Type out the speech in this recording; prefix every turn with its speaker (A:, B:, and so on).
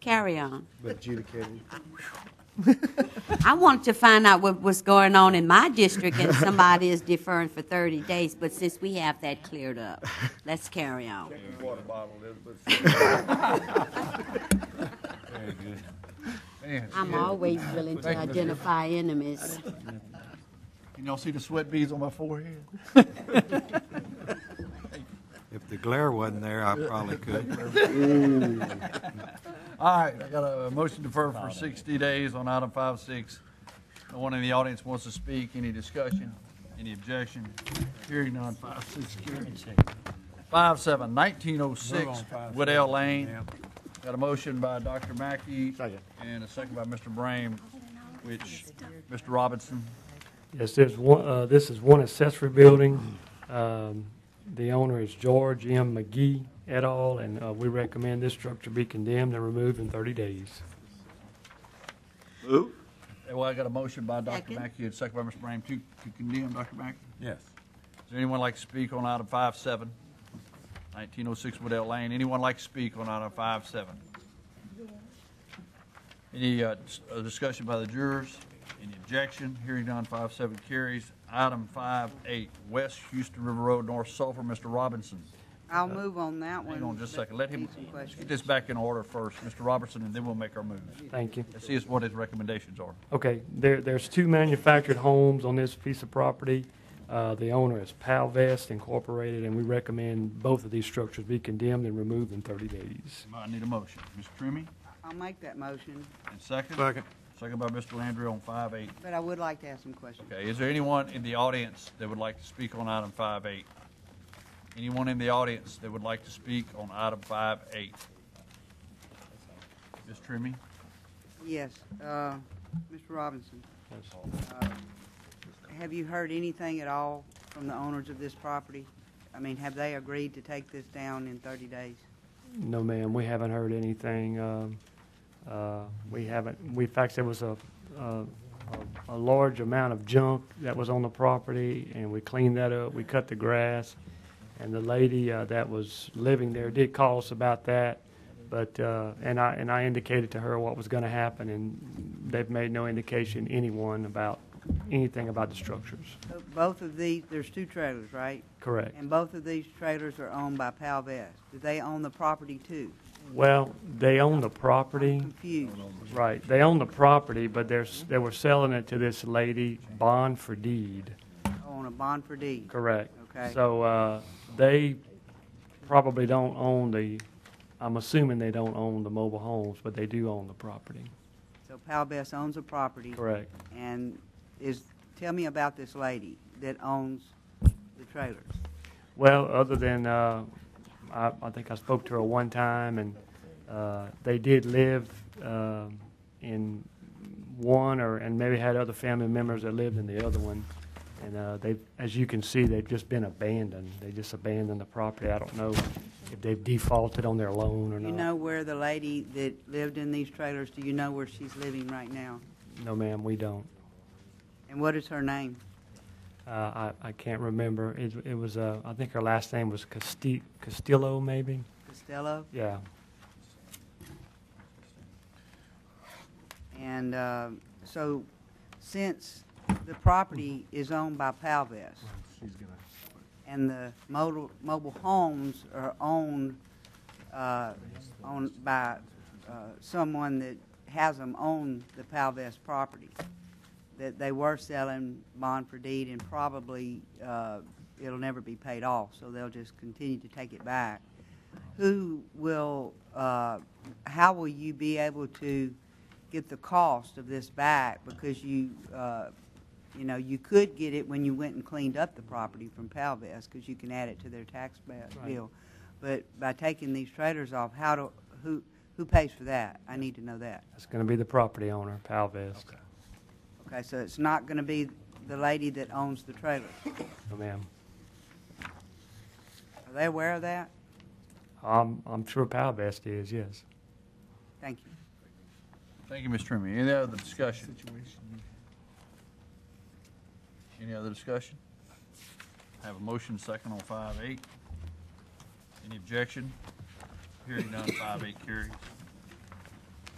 A: Carry on.
B: But adjudicated.
A: I wanted to find out what was going on in my district and somebody is deferring for 30 days, but since we have that cleared up, let's carry on.
B: Water bottle, Elizabeth.
C: Very good.
A: I'm always willing to identify enemies.
C: Can y'all see the sweat beads on my forehead?
D: If the glare wasn't there, I probably could.
C: All right, I got a motion to defer for 60 days on item five six. No one in the audience wants to speak. Any discussion? Any objection? Hearing none, Five six carried. Five seven, 1906 Woodell Lane. Got a motion by Dr. Mackey and a second by Mr. Brame, which, Mr. Robinson.
E: Yes, there's one, uh, this is one accessory building. Um, The owner is George M. McGee et al., and uh, we recommend this structure be condemned and removed in 30 days.
C: Well, I got a motion by Dr.
A: Second.
C: Mackey and second by Mr. Brame to to condemn Dr. Mackey.
D: Yes.
C: Does anyone like to speak on item five seven? Nineteen oh six Woodell Lane. Anyone like to speak on item five seven? Any uh, s- uh, discussion by the jurors? Any objection? Hearing none, five seven carries. Item five eight, West Houston River Road, North Sulphur, Mr. Robinson.
F: I'll move on that one.
C: Hang on just a second. Let him,
F: Need some
C: let's get
F: questions.
C: this back in order first, Mr. Robertson, and then we'll make our move.
E: Thank you.
C: Let's see what his recommendations are.
E: Okay, there, there's two manufactured homes on this piece of property. Uh, The owner is Palvest Incorporated, and we recommend both of these structures be condemned and removed in 30 days.
C: I need a motion. Ms. Trimmie,
F: I'll make that motion,
C: and second?
D: Second.
C: Second by Mr. Landry on five eight.
F: but I would like to ask some questions.
C: Okay, is there anyone in the audience that would like to speak on item five eight? Anyone in the audience that would like to speak on item five eight? Ms. Trimmie?
F: Yes, uh, Mr. Robinson, uh, have you heard anything at all from the owners of this property? I mean, have they agreed to take this down in 30 days?
E: No, ma'am, we haven't heard anything. Um, uh, We haven't, we, in fact, there was a, a- a a large amount of junk that was on the property, and we cleaned that up, we cut the grass, and the lady uh, that was living there did call us about that, but, uh, and I, and I indicated to her what was going to happen, and they've made no indication, anyone, about anything about the structures.
F: Uh, Both of these, there's two trailers, right?
E: Correct.
F: And both of these trailers are owned by Palvest. Do they own the property too?
E: Well, they own the property.
F: Confused.
E: Right, they own the property, but they're, s- they were selling it to this lady, bond for deed,
F: Oh, On a bond for deed.
E: correct?
F: Okay.
E: So, uh, they probably don't own the, I'm assuming they don't own the mobile homes, but they do own the property,
F: So Palvest owns the property.
E: correct?
F: And is, tell me about this lady that owns the trailers.
E: Well, other than, uh, I, I think I spoke to her one time, and, uh, they did live, um in one or, and maybe had other family members that lived in the other one. And, uh, they, as you can see, they've just been abandoned. They just abandoned the property. I don't know if they've defaulted on their loan or
F: Do you
E: not.
F: know where the lady that lived in these trailers, do you know where she's living right now?
E: No, ma'am, we don't.
F: And what is her name?
E: Uh, I, I can't remember. It, it was, uh, I think her last name was Casti- Castillo, maybe?
F: Costello?
E: Yeah.
F: And uh, so since the property is owned by Palvest and the mobile, mobile homes are owned, uh, owned by uh, someone that has them own the Palvest property, that they were selling bond for deed and probably uh, it'll never be paid off, so they'll just continue to take it back. Who will, uh, how will you be able to get the cost of this back? Because you, uh, you know, you could get it when you went and cleaned up the property from Palvest, because you can add it to their tax ba- bill. But by taking these traders off, how do, who, who pays for that? I need to know that.
E: That's gonna be the property owner, Palvest.
F: Okay, so it's not going to be the lady that owns the trailer.
E: No, ma'am.
F: Are they aware of that?
E: I'm, I'm sure Palvest is, yes.
F: Thank you.
C: Thank you, Ms. Trimmie. Any other discussion? Any other discussion? Have a motion second on five eight. Any objection? Hearing none, five eight carries.